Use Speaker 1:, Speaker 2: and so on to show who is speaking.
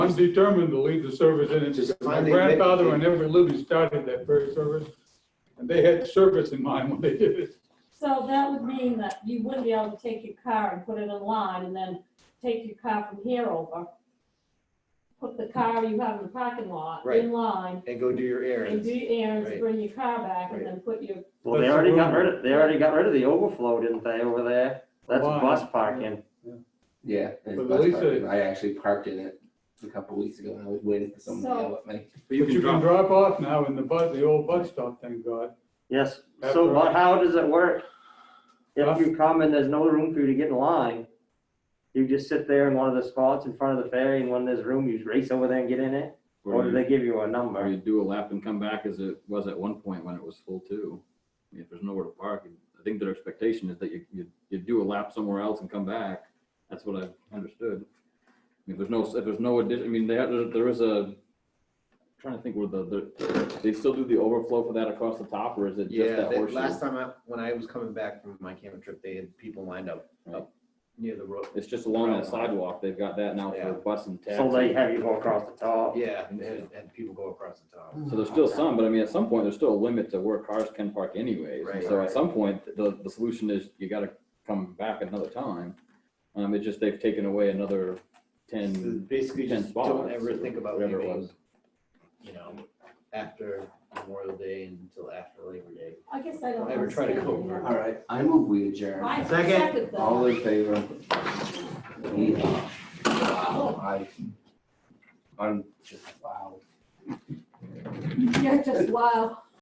Speaker 1: I'm determined to lead the service in
Speaker 2: Just
Speaker 1: it. My
Speaker 2: finally admit-
Speaker 1: grandfather and every living started that first service, and they had service in mind when they did it.
Speaker 3: So that would mean that you wouldn't be able to take your car and put it in line and then take your car from here over. Put the car you have in the parking lot
Speaker 2: Right.
Speaker 3: in line
Speaker 2: and go do your
Speaker 3: and
Speaker 2: errands.
Speaker 3: do your errands,
Speaker 2: Right.
Speaker 3: bring your car back
Speaker 2: Right.
Speaker 3: and then put your,
Speaker 4: Well, they
Speaker 1: That's
Speaker 4: already got
Speaker 1: the
Speaker 4: rid of, they already got rid of the overflow, didn't they, over there? That's
Speaker 1: Why?
Speaker 4: bus parking.
Speaker 5: Yeah, and
Speaker 1: But
Speaker 5: bus
Speaker 1: Lisa-
Speaker 5: parking. I actually parked in it a couple weeks ago and I was waiting for someone to
Speaker 3: So-
Speaker 5: yell at me.
Speaker 2: But
Speaker 1: But you can drop off now in the bus, the old bus stop, thank God.
Speaker 4: Yes,
Speaker 1: That's
Speaker 4: so,
Speaker 1: right.
Speaker 4: but how does it work?
Speaker 1: Huh?
Speaker 4: If you come and there's no room for you to get in line, you just sit there in one of the spots in front of the ferry, and when there's room, you just race over there and get in it? Or
Speaker 1: Oh,
Speaker 6: Or
Speaker 4: do
Speaker 6: you,
Speaker 4: they give you a
Speaker 6: or
Speaker 4: number?
Speaker 6: you do a lap and come back as it was at one point when it was full too. I mean, If there's nowhere to park, I think their expectation is that you, you, you do a lap somewhere else and come back. That's what I've understood. I mean, If there's no, if there's no addition, I mean, they had, there- there is a, trying to think where the, the, they still do the overflow for that across the top or is it just
Speaker 2: Yeah,
Speaker 6: that
Speaker 2: that-
Speaker 6: horseshoe?
Speaker 2: last time I, when I was coming back from my camping trip, they had people lined up,
Speaker 6: Right.
Speaker 2: up near the road.
Speaker 6: It's just along that sidewalk. They've got that now
Speaker 2: Yeah.
Speaker 6: for bus and taxi.
Speaker 4: So they have you go across the top?
Speaker 2: Yeah, and, and people go across the top.
Speaker 6: So there's still some, but I mean, at some point, there's still a limit to where cars can park anyways. And
Speaker 2: Right.
Speaker 6: So at some point, the, the solution is you gotta come back another time. Um, it's just they've taken away another
Speaker 2: So
Speaker 6: ten,
Speaker 2: Basically,
Speaker 6: ten
Speaker 2: just don't
Speaker 6: spots.
Speaker 2: ever
Speaker 6: or
Speaker 2: think about
Speaker 6: whatever it
Speaker 2: leaving,
Speaker 6: was.
Speaker 2: you know, after Memorial Day until after Labor Day.
Speaker 3: I guess I don't.
Speaker 2: Don't ever try to go
Speaker 3: understand.
Speaker 5: All right, I move we adjourn.
Speaker 3: I
Speaker 2: Second.
Speaker 3: second
Speaker 5: All
Speaker 3: that.
Speaker 5: in favor? We are. Wow, I, I'm just, wow.
Speaker 3: You're just wow.